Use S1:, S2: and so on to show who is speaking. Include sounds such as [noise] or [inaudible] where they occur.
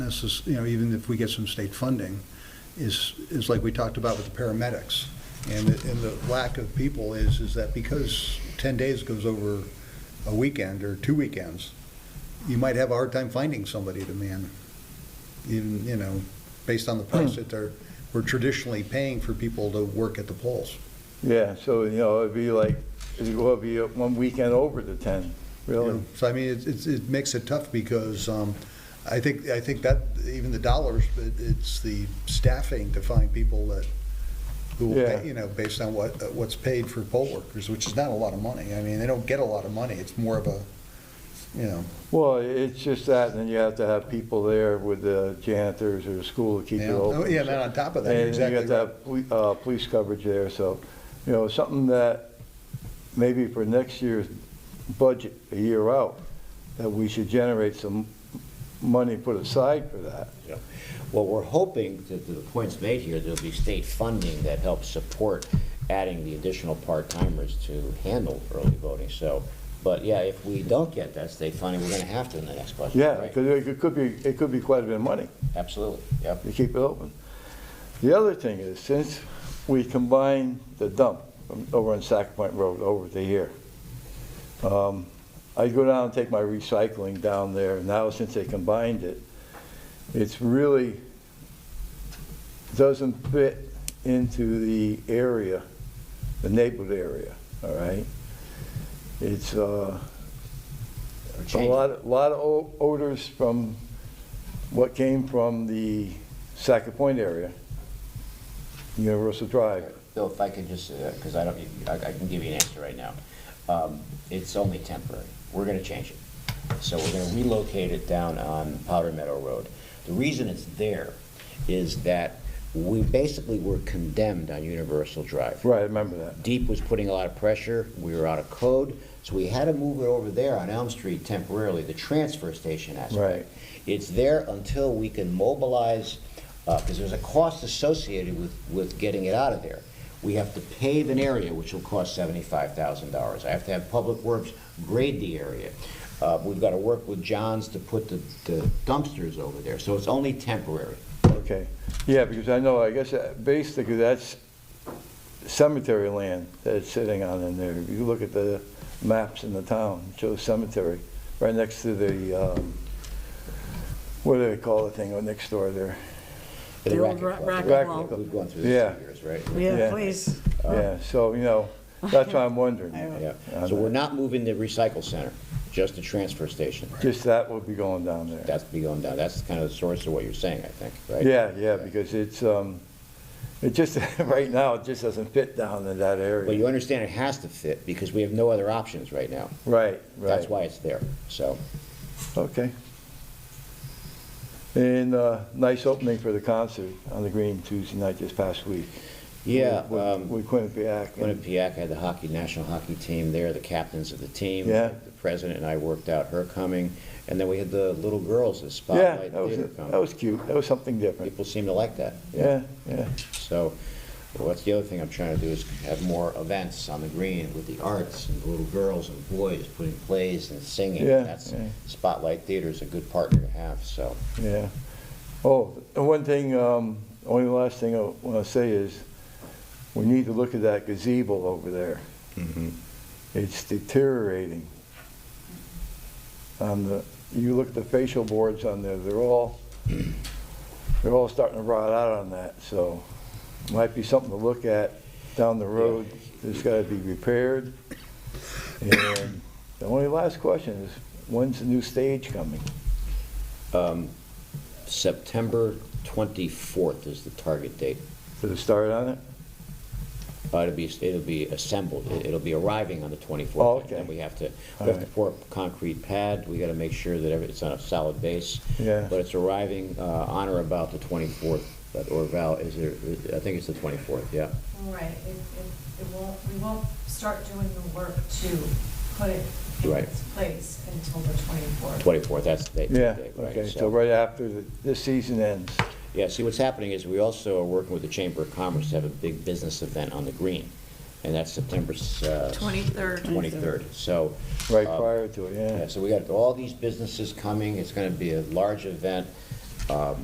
S1: necess, you know, even if we get some state funding, is, is like we talked about with the paramedics. And, the- and the lack of people is, is that because 10 days goes over a weekend or two weekends, you might have a hard time finding somebody to man, even, you know, based on the price that they're, we're traditionally paying for people to work at the polls.
S2: Yeah, so, you know, it'd be like, it'd go- it'd be one weekend over the 10,
S1: You
S2: really.
S1: know, So I mean, it's- it's, it makes it tough because um, I think, I think that, even the dollars, it- it's the staffing to find people that, who will
S2: Yeah.
S1: pay, you know, based on what, uh, what's paid for poll workers, which is not a lot of money. I mean, they don't get a lot of money. It's more of a, you know,
S2: Well, it's just that, and then you have to have people there with the janitors or the school to keep it
S1: Yeah.
S2: open.
S1: Oh, yeah, and then on top of that, you're
S2: And you have
S1: exactly
S2: to have poli- uh, police coverage there, so, you know, something that maybe for next year's budget, a year out, that we should generate some money put aside for that.
S3: Well, we're hoping that the points made here, there'll be state funding that helps support adding the additional part-timers to handle early voting, so, but yeah, if we don't get that state funding, we're gonna have to in the next budget.
S2: Yeah,
S3: right?
S2: because it could be, it could be quite a bit of money.
S3: Absolutely, yep.
S2: to keep it open. The other thing is, since we combined the dump from over on Sack Point Road over to here, um, I go down and take my recycling down there, now since they combined it, it's really, doesn't fit into the area, the neighborhood area, all right? It's, uh,
S3: We're
S2: a
S3: changing.
S2: lot, lot of o- odors from what came from the Sack Point area, Universal Drive.
S3: Bill, if I could just, because I don't, I I can give you an answer right now. Um, It's only temporary. We're going to change it. So we're going to relocate it down on Powder Meadow Road. The reason it's there is that we basically were condemned on Universal Drive.
S2: Right, I remember that.
S3: Deep was putting a lot of pressure, we were out of code, so we had to move it over there on Elm Street temporarily, the transfer station
S2: Right.
S3: aspect. It's there until we can mobilize, because there's a cost associated with, with getting it out of there. We have to pave an area, which will cost seventy-five thousand dollars. I have to have Public Works grade the area. Uh, We've got to work with Johns to put the the dumpsters over there, so it's only temporary.
S2: Okay, yeah, because I know, I guess, uh, basically, that's cemetery land that it's sitting on in there. If you look at the maps in the town, it shows cemetery, right next to the, um, what do they call the thing, oh, next door there?
S3: The
S4: The old
S3: racket
S4: ra-
S3: club.
S4: racket
S2: Racket
S4: wall.
S2: club.
S3: We've gone through this
S2: Yeah.
S3: for years, right?
S2: Yeah.
S4: Yeah, please.
S2: Yeah, so, you know, that's why I'm wondering.
S3: Uh. [laughs] Yeah,
S2: I
S3: so
S2: know.
S3: we're not moving the recycle center, just the transfer station.
S2: Just that would be going down there.
S3: That's be going down, that's kind of the source of what you're saying, I think, right?
S2: Yeah, yeah, because it's, um, it just, [laughs] right now, it just doesn't fit down in that
S3: But you
S2: area.
S3: understand it has to fit, because we have no other options right now.
S2: Right,
S3: That's
S2: right,
S3: why it's there, so.
S2: okay. And, uh, nice opening for the concert on the green Tuesday night this past week.
S3: Yeah,
S2: With-
S3: um,
S2: With Quinnipiac. and-
S3: Quinnipiac had the hockey, national hockey team there, the captains of the team.
S2: Yeah.
S3: The president and I worked out her coming, and then we had the little girls, the
S2: Yeah,
S3: spotlight
S2: that was,
S3: theater
S2: that
S3: coming.
S2: was cute, that was something different.
S3: People seem to like that.
S2: Yeah, yeah,
S3: So, well, that's the other thing I'm trying to do is have more events on the green with the arts and the little girls and boys putting plays and singing.
S2: Yeah,
S3: That's,
S2: yeah.
S3: Spotlight Theater is a good partner to have, so.
S2: yeah. Oh, and one thing, um, only last thing I wanna say is, we need to look at that gazebo over there. It's deteriorating. On the, you look at the facial boards on there, they're all, they're all starting to rot out on that, so might be something to look at down the road. It's gotta be repaired. And the only last question is, when's the new stage coming?
S3: Um, September 24th is the target date.
S2: Did it start on it?
S3: Uh, It'll be, it'll be assembled, It- it'll be arriving on the 24th.
S2: Oh,
S3: and then
S2: okay.
S3: we have to, we
S2: All
S3: have to
S2: right.
S3: pour a concrete pad, we gotta make sure that every- it's on a solid base.
S2: Yeah.
S3: But it's arriving uh, on or about the 24th, but Orval, is there, I think it's the 24th, yeah.
S5: Right, it, it, it won't, we won't start doing the work to put it in
S3: Right.
S5: its place until the twenty-fourth.
S3: 24th, that's the date.
S2: Yeah,
S3: date, right,
S2: okay, so
S3: so-
S2: right after the- this season ends.
S3: Yeah, see, what's happening is we also are working with the Chamber of Commerce to have a big business event on the green, and that's September uh,
S4: 23rd.
S3: 23rd, so.
S2: Right
S3: uh,
S2: prior to it, yeah.
S3: Yeah, so we got all these businesses coming, it's gonna be a large event, um,